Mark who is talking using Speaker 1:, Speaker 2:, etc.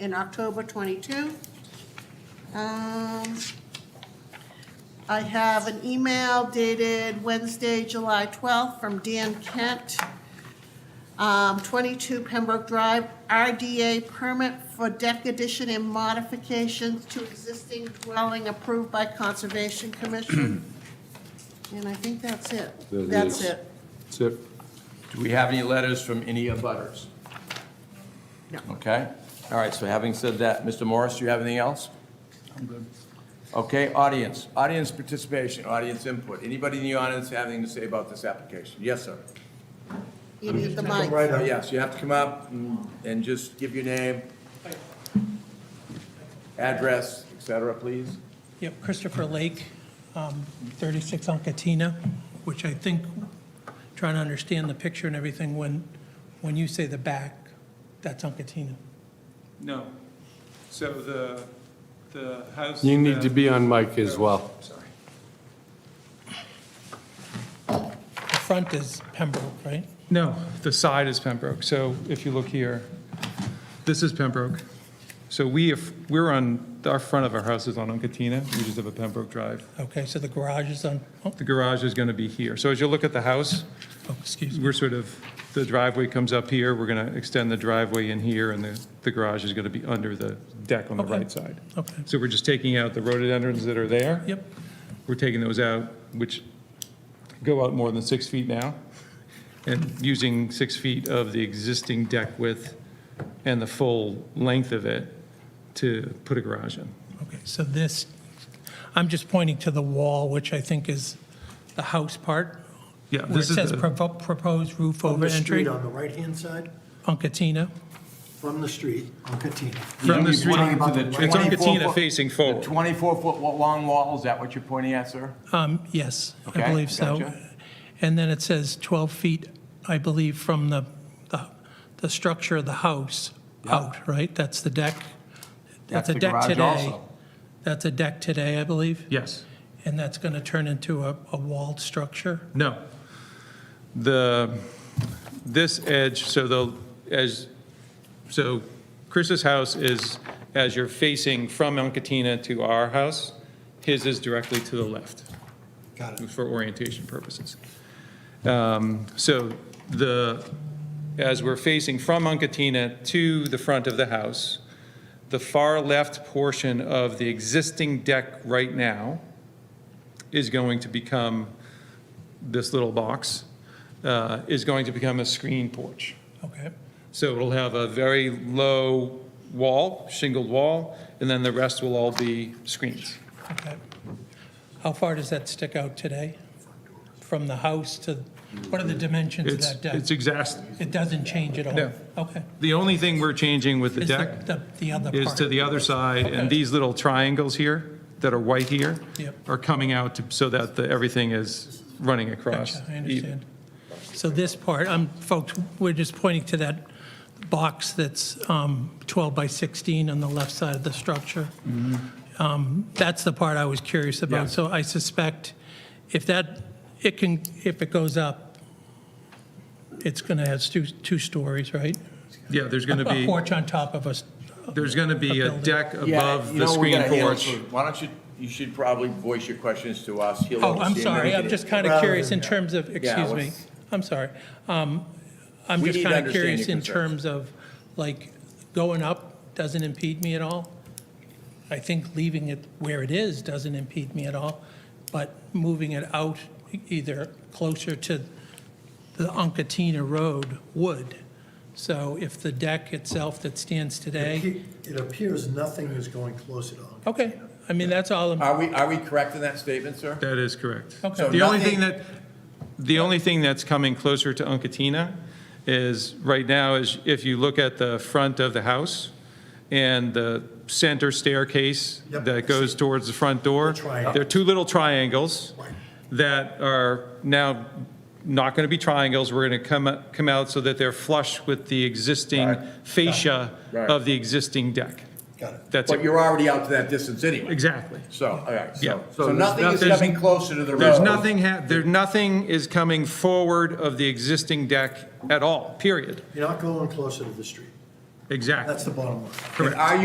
Speaker 1: in October 22. Um, I have an email dated Wednesday, July 12th from Dan Kent, um, 22 Pembroke Drive, RDA permit for deck addition and modifications to existing dwelling approved by Conservation Commission. And I think that's it.
Speaker 2: That
Speaker 1: That's
Speaker 2: is-
Speaker 1: it.
Speaker 2: That's it.
Speaker 3: Do we have any letters from any of butters?
Speaker 1: No.
Speaker 3: Okay, all right, so having said that, Mr. Morris, do you have anything else? I'm good. Okay, audience, audience participation, audience input. Anybody in the audience have anything to say about this application? Yes, sir.
Speaker 1: You need the mic.
Speaker 3: Uh, Yes, you have to come up and- and just give your name, address, et cetera, please.
Speaker 4: Yep, Christopher Lake, um, 36 Uncatina, which I think, trying to understand the picture and everything, when, when you say the back, that's Uncatina.
Speaker 5: No. So the, the house.
Speaker 2: You need
Speaker 5: that-
Speaker 2: to be on mic as well.
Speaker 5: Sorry.
Speaker 4: The front is Pembroke, right?
Speaker 5: No, the side is Pembroke. So if you look here, this is Pembroke. So we, have we're on, our front of our house is on Uncatina. We just have a Pembroke Drive.
Speaker 4: Okay, so the garage is on, oh,
Speaker 5: The garage is going to be here. So as you look at the house,
Speaker 4: oh, excuse me.
Speaker 5: we're sort of, the driveway comes up here. We're going to extend the driveway in here, and the, the garage is going to be under the deck on the
Speaker 4: Okay.
Speaker 5: right side.
Speaker 4: Okay,
Speaker 5: So we're just taking out the rhododendrons that are there.
Speaker 4: yep,
Speaker 5: We're taking those out, which go out more than six feet now, and using six feet of the existing deck width and the full length of it to put a garage in.
Speaker 4: okay, so this, I'm just pointing to the wall, which I think is the house part.
Speaker 5: Yeah,
Speaker 4: Where it
Speaker 5: this is
Speaker 4: says
Speaker 5: the,
Speaker 4: propo- proposed roof
Speaker 6: From
Speaker 4: over
Speaker 6: the street
Speaker 4: entry,
Speaker 6: on the right-hand side,
Speaker 4: Uncatina.
Speaker 6: from the street on Katina.
Speaker 5: from the street,
Speaker 6: pointing to the
Speaker 5: it's on
Speaker 3: 24
Speaker 5: Katina
Speaker 3: foot-
Speaker 5: facing
Speaker 3: The
Speaker 5: forward.
Speaker 3: 24-foot long wall, is that what you're pointing at, sir?
Speaker 4: Um, Yes,
Speaker 3: Okay,
Speaker 4: I believe so.
Speaker 3: gotcha.
Speaker 4: And then it says 12 feet, I believe, from the, the- the structure of the house out, right? That's the deck?
Speaker 3: That's
Speaker 4: a
Speaker 3: the
Speaker 4: deck
Speaker 3: garage
Speaker 4: today.
Speaker 3: also.
Speaker 4: That's a deck today, I believe,
Speaker 5: Yes,
Speaker 4: and that's going to turn into a, a walled structure?
Speaker 5: no. The, this edge, so the, as, so Chris's house is, as you're facing from Uncatina to our house, his is directly to the left.
Speaker 6: Got it.
Speaker 5: for orientation purposes. Um, So the, as we're facing from Uncatina to the front of the house, the far left portion of the existing deck right now is going to become, this little box, uh, is going to become a screen porch.
Speaker 4: Okay,
Speaker 5: So it'll have a very low wall, shingled wall, and then the rest will all be screens.
Speaker 4: okay. How far does that stick out today? From the house to, what are the dimensions of
Speaker 5: It's,
Speaker 4: that
Speaker 5: it's
Speaker 4: deck?
Speaker 5: exact,
Speaker 4: It doesn't change at all?
Speaker 5: No.
Speaker 4: Okay.
Speaker 5: the only thing we're changing with the
Speaker 4: Is
Speaker 5: deck
Speaker 4: The, the other part?
Speaker 5: is to the other side,
Speaker 4: Okay.
Speaker 5: and these little triangles here that are white here
Speaker 4: Yep.
Speaker 5: are coming out to- so that the- everything is running across.
Speaker 4: Gotcha, I understand. So this part, I'm, folks, we're just pointing to that box that's um, 12 by 16 on the left side of the structure. Um, That's the part I was curious
Speaker 5: Mm-hmm. Yeah.
Speaker 4: about. So I suspect if that, it can, if it goes up, it's going to have two, two stories, right?
Speaker 5: Yeah, there's going to
Speaker 4: A
Speaker 5: be,
Speaker 4: porch on top of us.
Speaker 5: there's going to be
Speaker 4: A
Speaker 5: a
Speaker 4: building.
Speaker 5: deck
Speaker 3: Yeah,
Speaker 5: above
Speaker 3: you
Speaker 5: the
Speaker 3: know, we
Speaker 5: screen
Speaker 3: gotta handle
Speaker 5: porch.
Speaker 3: it. Why don't you, you should probably voice your questions to us. He'll
Speaker 4: Oh, I'm
Speaker 3: understand
Speaker 4: sorry, I'm
Speaker 3: everything.
Speaker 4: just kind of
Speaker 6: Rather
Speaker 4: curious in
Speaker 6: than-
Speaker 4: terms of, excuse me,
Speaker 3: what's-
Speaker 4: I'm sorry. Um, I'm
Speaker 3: We
Speaker 4: just
Speaker 3: need to
Speaker 4: kind of
Speaker 3: understand
Speaker 4: curious
Speaker 3: your
Speaker 4: in
Speaker 3: concerns.
Speaker 4: terms of, like, going up doesn't impede me at all. I think leaving it where it is doesn't impede me at all, but moving it out e-, either closer to the Uncatina Road would. So if the deck itself that stands today,
Speaker 6: It appears nothing is going closer to Uncle.
Speaker 4: okay, I mean, that's all, I'm-
Speaker 3: Are we, are we correct in that statement, sir?
Speaker 5: That is correct.
Speaker 4: Okay. So
Speaker 5: The only
Speaker 3: nothing-
Speaker 5: thing that, the only thing that's coming closer to Uncatina is, right now, is if you look at the front of the house and the center staircase
Speaker 6: Yep.
Speaker 5: that goes towards the front door,
Speaker 6: The triangle.
Speaker 5: there are two little triangles
Speaker 6: Right.
Speaker 5: that are now not going to be triangles. We're going to come, come out so that they're flush with the existing
Speaker 3: Right.
Speaker 5: fascia
Speaker 3: Right.
Speaker 5: of the existing deck.
Speaker 6: Got it.
Speaker 5: That's
Speaker 3: But
Speaker 5: it.
Speaker 3: you're already out to that distance anyway.
Speaker 5: Exactly.
Speaker 3: So, all right,
Speaker 5: Yeah.
Speaker 3: so, so
Speaker 5: So
Speaker 3: nothing
Speaker 5: there's
Speaker 3: is
Speaker 5: nothing-
Speaker 3: coming closer to the road.
Speaker 5: There's nothing, ha- there, nothing is coming forward of the existing deck at all, period.
Speaker 6: You're not going closer to the street.
Speaker 7: Exactly.
Speaker 5: That's the bottom line.
Speaker 6: And are you